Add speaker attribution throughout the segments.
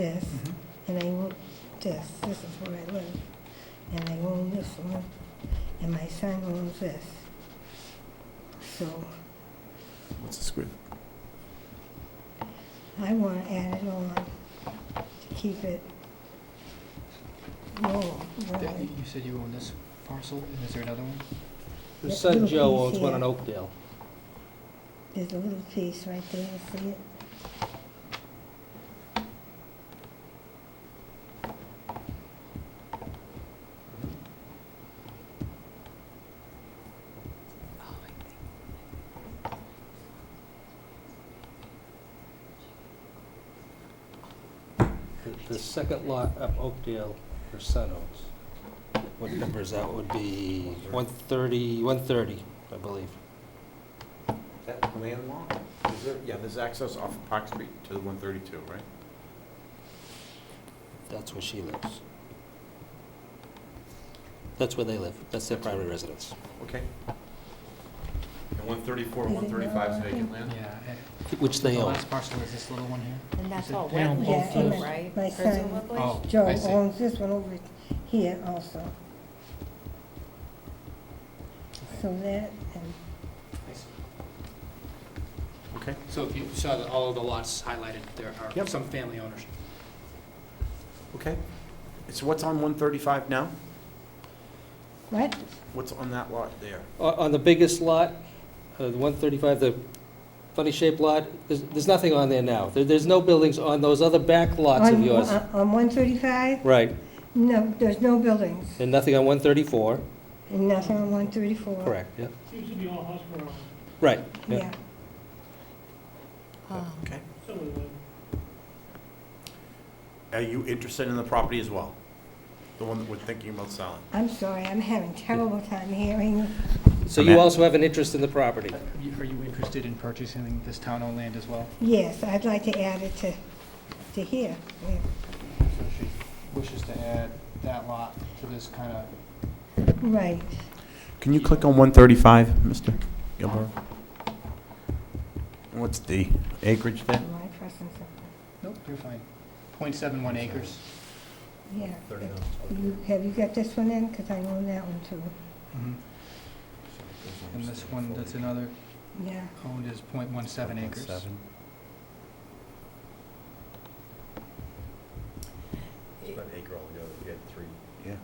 Speaker 1: this, and they want this, this is where I live, and they own this one, and my son owns this. So
Speaker 2: What's the square?
Speaker 1: I want to add it on to keep it low.
Speaker 3: Yeah, You you said you own this parcel, and is there another one?
Speaker 1: Yeah,
Speaker 4: His son
Speaker 1: little
Speaker 4: Joe
Speaker 1: piece
Speaker 4: owns one
Speaker 1: here.
Speaker 4: in Oakdale.
Speaker 1: There's a little piece right there, see it?
Speaker 4: The- The second lot up Oakdale, her son owns. What number is that? Would be 130, 130, I believe.
Speaker 5: That landlocked? Is there, yeah, there's access off of Park Street to the 132, right?
Speaker 4: That's where she lives. That's where they live. That's their primary residence.
Speaker 5: Okay. And 134,
Speaker 1: Is it
Speaker 5: 135 is vacant land?
Speaker 3: Yeah. I-
Speaker 4: Which they
Speaker 3: The
Speaker 4: own.
Speaker 3: last parcel is this little one here?
Speaker 6: And that's
Speaker 3: Is it
Speaker 6: all
Speaker 3: down
Speaker 6: wetland
Speaker 3: both
Speaker 6: too,
Speaker 3: sides?
Speaker 6: right?
Speaker 1: My son-
Speaker 6: Presumably?
Speaker 3: Oh,
Speaker 1: Joe
Speaker 3: I see.
Speaker 1: owns this one over here also. So that, and
Speaker 5: Okay.
Speaker 3: So if you saw that all of the lots highlighted, there are some family ownership.
Speaker 5: Okay. So what's on 135 now?
Speaker 1: what?
Speaker 5: What's on that lot there?
Speaker 4: O- On the biggest lot, uh, the 135, the funny-shaped lot, there's there's nothing on there now. There- There's no buildings on those other back lots of
Speaker 1: On-
Speaker 4: yours.
Speaker 1: on- On one thirty-five?
Speaker 4: Right,
Speaker 1: No, there's no buildings,
Speaker 4: and nothing on 134,
Speaker 1: and nothing on one thirty-four.
Speaker 4: correct, yeah.
Speaker 7: Seems to be all hospital,
Speaker 4: Right, yeah.
Speaker 1: Yeah,
Speaker 6: Um,
Speaker 5: Okay.
Speaker 7: some of them.
Speaker 5: Are you interested in the property as well? The one that we're thinking about selling?
Speaker 1: I'm sorry, I'm having terrible time hearing you.
Speaker 4: So you also have an interest in the property?
Speaker 3: You- Are you interested in purchasing this town-owned land as well?
Speaker 1: Yes, I'd like to add it to, to here. yeah.
Speaker 3: So she wishes to add that lot to this kind of
Speaker 1: Right,
Speaker 5: Can you click on 135, Mr. Gilmore? What's the acreage there?
Speaker 1: am I pressing something?
Speaker 3: Nope, you're fine. 0.71 acres.
Speaker 1: Yeah. You, have you got this one in? Because I own that one too.
Speaker 3: And Mm-hmm. this one that's another
Speaker 1: Yeah,
Speaker 3: owned is 0.17 acres.
Speaker 5: Yeah.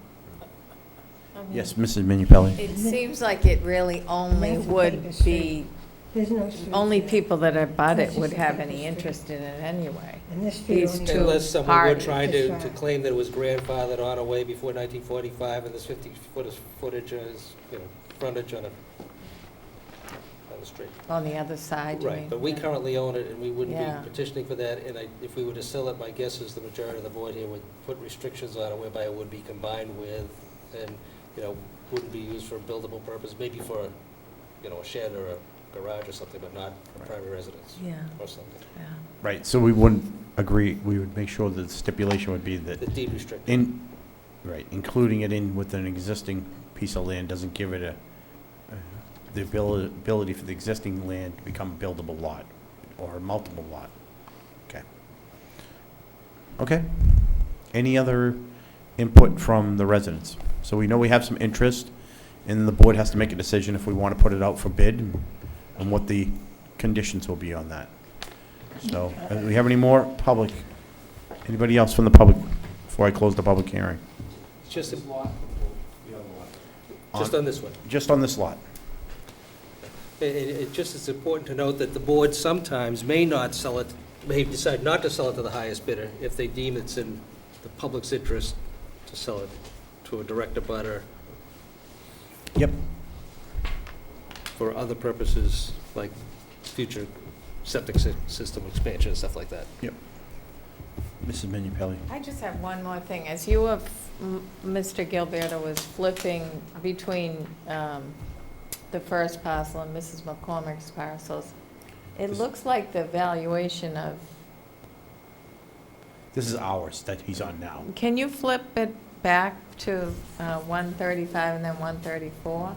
Speaker 6: I mean,
Speaker 5: Yes, Mrs. Minipelli?
Speaker 6: It seems like it really only
Speaker 1: That's a
Speaker 6: would
Speaker 1: paper
Speaker 6: be,
Speaker 1: there's no street.
Speaker 6: only
Speaker 1: there.
Speaker 6: people that abut it
Speaker 1: That's
Speaker 6: would
Speaker 1: just a
Speaker 6: have
Speaker 1: paper
Speaker 6: any
Speaker 1: street.
Speaker 6: interest in it anyway.
Speaker 1: And this street
Speaker 6: these
Speaker 1: only
Speaker 6: two.
Speaker 1: goes,
Speaker 4: Unless someone were
Speaker 6: parties.
Speaker 4: trying to,
Speaker 1: That's
Speaker 4: to
Speaker 1: right.
Speaker 4: claim that it was grandfathered on away before 1945, and there's 50 foot of footage, uh, is, you know, frontage on a, on the street.
Speaker 6: On the other side, you mean?
Speaker 4: Right, but we currently own it, and we wouldn't
Speaker 6: Yeah.
Speaker 4: be petitioning for that, and I, if we were to sell it, my guess is the majority of the board here would put restrictions on it whereby it would be combined with, and, you know, wouldn't be used for a buildable purpose, maybe for, you know, a shed or a garage or something, but not a
Speaker 5: Right.
Speaker 4: primary residence
Speaker 6: Yeah,
Speaker 4: or something.
Speaker 6: yeah.
Speaker 5: Right, so we wouldn't agree, we would make sure that the stipulation would be that
Speaker 4: The deed restricted.
Speaker 5: in, right, including it in with an existing piece of land doesn't give it a, uh, the abil- ability for the existing land to become a buildable lot or a multiple lot. Okay. Okay. Any other input from the residents? So we know we have some interest, and the board has to make a decision if we want to put it out for bid and what the conditions will be on that. So, uh, do we have any more public? Anybody else from the public before I close the public hearing?
Speaker 4: It's Just a Just on this one.
Speaker 5: Just on this lot.
Speaker 4: It, it, it just is important to note that the board sometimes may not sell it, may decide not to sell it to the highest bidder if they deem it's in the public's interest to sell it to a direct abutter
Speaker 5: Yep.
Speaker 4: for other purposes, like future septic sy- system expansion and stuff like that.
Speaker 5: Mrs. Minipelli.
Speaker 6: I just have one more thing. As you were, m- Mr. Gilberto was flipping between um, the first parcel and Mrs. McCormick's parcels, it
Speaker 5: This-
Speaker 6: looks like the valuation of,
Speaker 5: This is ours that he's on now.
Speaker 6: can you flip it back to uh, 135 and then 134?